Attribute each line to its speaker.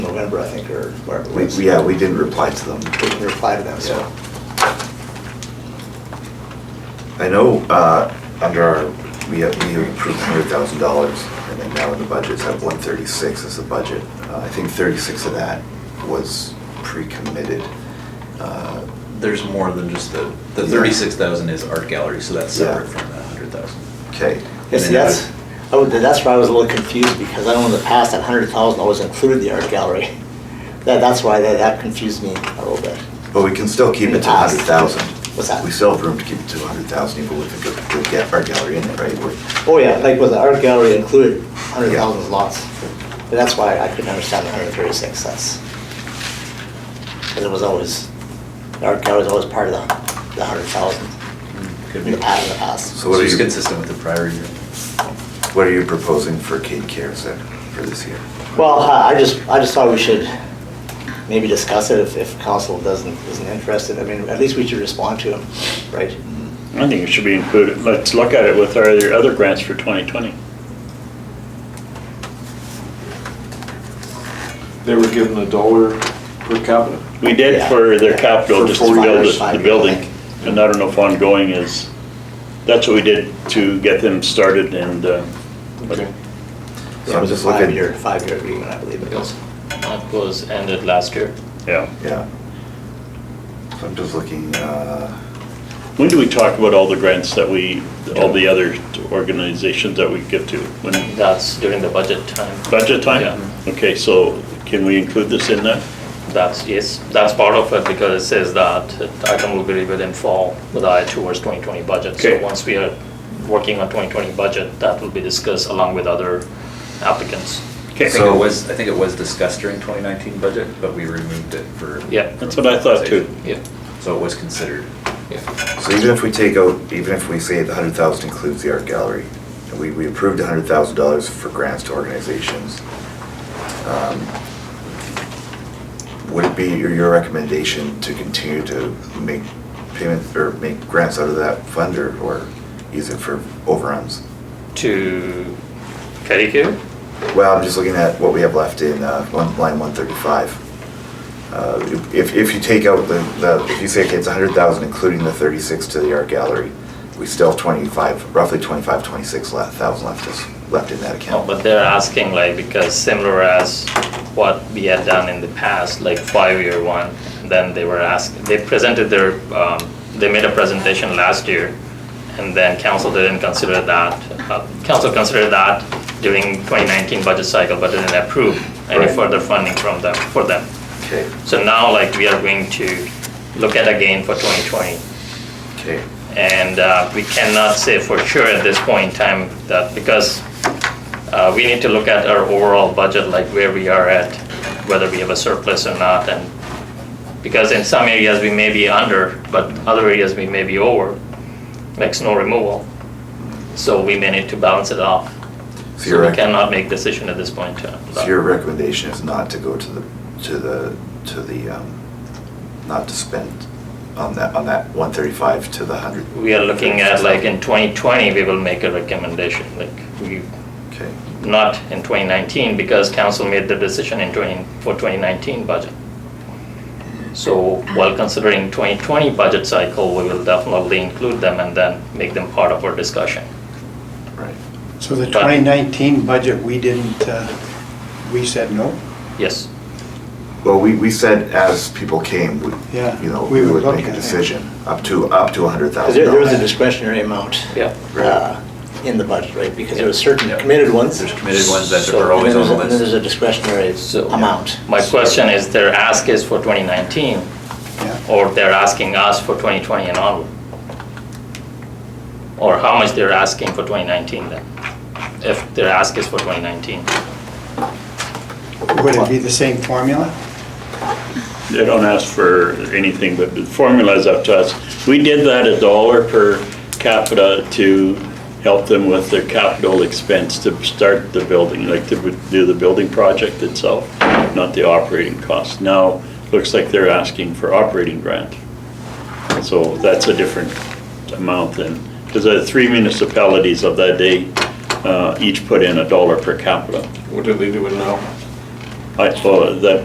Speaker 1: member, I think, or whatever. it
Speaker 2: We,
Speaker 1: was.
Speaker 2: yeah, we didn't reply to them.
Speaker 1: We can reply to them, so.
Speaker 2: I know, uh, under our, we have, we approved hundred thousand dollars, and then now in the budget's at one thirty-six as the budget. Uh, I think thirty-six of that was pre-committed. Uh,
Speaker 3: There's more than just the, the
Speaker 2: Yeah.
Speaker 3: thirty-six thousand is art gallery, so that's
Speaker 2: Yeah.
Speaker 3: separate from that hundred thousand.
Speaker 2: Okay,
Speaker 1: Yeah, see, that's, I would- that's where I was a little confused, because I know in the past, that hundred thousand always included the art gallery. That, that's why that, that confused me a little bit.
Speaker 2: but we can still keep it to
Speaker 1: Pass.
Speaker 2: hundred thousand.
Speaker 1: What's that?
Speaker 2: We still have room to keep it to hundred thousand, even with the, good- the ga- our gallery in it, right? We're-
Speaker 1: Oh, yeah, like with the art gallery included, hundred
Speaker 2: Yeah.
Speaker 1: thousand lots. But that's why I couldn't understand the hundred thirty-six, that's. Because it was always, the art gallery was always part of the, the hundred thousand,
Speaker 3: Could
Speaker 1: in
Speaker 3: be.
Speaker 1: the past, in the past.
Speaker 2: So what are
Speaker 3: it's
Speaker 2: you-
Speaker 3: consistent with the prior year.
Speaker 2: What are you proposing for Kate Cares then, for this year?
Speaker 1: Well, uh, I I just, I just thought we should maybe discuss it if, if council doesn't, isn't interested. I mean, at least we should respond to them, right?
Speaker 4: I think it should be included. Let's look at it with our other- other grants for 2020.
Speaker 5: They were given a dollar per capita.
Speaker 4: We did
Speaker 1: Yeah.
Speaker 4: for their capital,
Speaker 5: For
Speaker 4: just to
Speaker 5: four
Speaker 4: build
Speaker 1: years.
Speaker 4: it- the building. And I don't know if ongoing is, that's what we did to get them started and, uh,
Speaker 5: Okay.
Speaker 2: So
Speaker 1: It
Speaker 2: I'm
Speaker 1: was a
Speaker 2: just looking-
Speaker 1: five-year, five-year agreement, I believe it was.
Speaker 6: That was ended last year.
Speaker 4: yeah.
Speaker 2: Yeah. So I'm just looking, uh,
Speaker 4: When do we talk about all the grants that we, all the other organizations that we give to? When,
Speaker 6: That's during the budget time.
Speaker 4: budget
Speaker 6: Yeah.
Speaker 4: time? Okay, so can we include this in that?
Speaker 6: That's, yes, that's part of it because it says that the item will be reviewed in fall with eye towards 2020 budget. So
Speaker 4: Okay.
Speaker 6: once we are working on 2020 budget, that will be discussed along with other applicants.
Speaker 3: I think
Speaker 2: So-
Speaker 3: it was, I think it was discussed during twenty nineteen budget, but we removed it for.
Speaker 6: Yeah.
Speaker 4: That's what I thought too.
Speaker 6: Yeah,
Speaker 3: So it was considered.
Speaker 6: yeah.
Speaker 2: So even if we take out, even if we say the hundred thousand includes the art gallery, and we, we approved a hundred thousand dollars for grants to organizations, um, would it be your, your recommendation to continue to make payments or make grants out of that fund or, or use it for overruns?
Speaker 6: To Kerikere?
Speaker 2: Well, I'm just looking at what we have left in, uh, one, line one thirty-five. Uh, if, if you take out the, the, if you say it's a hundred thousand, including the thirty-six to the art gallery, we still have twenty-five, roughly twenty-five, twenty-six le- thousand left is, left in that
Speaker 6: No,
Speaker 2: account.
Speaker 6: Oh, but they're asking like, because similar as what we had done in the past, like five-year one, then they were asked, they presented their, um, they made a presentation last year, and then council didn't consider that. Uh, Council considered that during 2019 budget cycle, but didn't approve any
Speaker 2: Right.
Speaker 6: further funding from them, for them.
Speaker 2: Okay,
Speaker 6: So now like we are going to look at again for 2020.
Speaker 2: okay.
Speaker 6: And uh, we cannot say for sure at this point in time that, because uh, we need to look at our overall budget, like where we are at, whether we have a surplus or not, and because in some areas we may be under, but other areas we may be over, like snow removal. So we may need to balance it off.
Speaker 2: So you're
Speaker 6: So we
Speaker 2: right.
Speaker 6: cannot make decision at this point in time.
Speaker 2: So your recommendation is not to go to the, to the, to the, um, not to spend on that, on that one thirty-five to the hundred?
Speaker 6: We are looking at, like, in 2020, we will make a recommendation, like, we
Speaker 2: Okay,
Speaker 6: not in 2019 because council made the decision in 20, for 2019 budget. So while considering 2020 budget cycle, we will definitely include them and then make them part of our discussion.
Speaker 2: right.
Speaker 7: So the
Speaker 6: But-
Speaker 7: 2019 budget, we didn't, uh, we said no?
Speaker 6: Yes,
Speaker 2: Well, we, we said as people came, we,
Speaker 7: Yeah,
Speaker 2: you know,
Speaker 7: we
Speaker 2: we
Speaker 7: would
Speaker 2: would
Speaker 7: look
Speaker 2: make a
Speaker 7: at it.
Speaker 2: decision, up to, up to a hundred
Speaker 1: Because
Speaker 2: thousand
Speaker 1: there, there was a
Speaker 2: dollars.
Speaker 1: discretionary amount.
Speaker 6: Yeah.
Speaker 1: uh, In the budget, right, because there were certain
Speaker 3: Yeah.
Speaker 1: committed ones.
Speaker 3: There's committed ones that
Speaker 6: So-
Speaker 3: are
Speaker 1: And
Speaker 3: always
Speaker 1: then
Speaker 3: on
Speaker 1: there's,
Speaker 3: the
Speaker 1: a- and then there's
Speaker 3: list.
Speaker 1: a discretionary
Speaker 6: So-
Speaker 1: amount.
Speaker 6: my question is their ask is for 2019
Speaker 7: Yeah.
Speaker 6: or they're asking us for 2020 and onward? Or how much they're asking for 2019 then? If their ask is for 2019?
Speaker 7: Would it be the same formula?
Speaker 4: They don't ask for anything, but the formula is up to us. We did that a dollar per capita to help them with their capital expense to start the building, like to do the building project itself, not the operating cost. Now, looks like they're asking for operating grant. So that's a different amount than, because the three municipalities of that day uh, each put in a dollar per capita.
Speaker 5: What did they do it now?
Speaker 4: I, well, that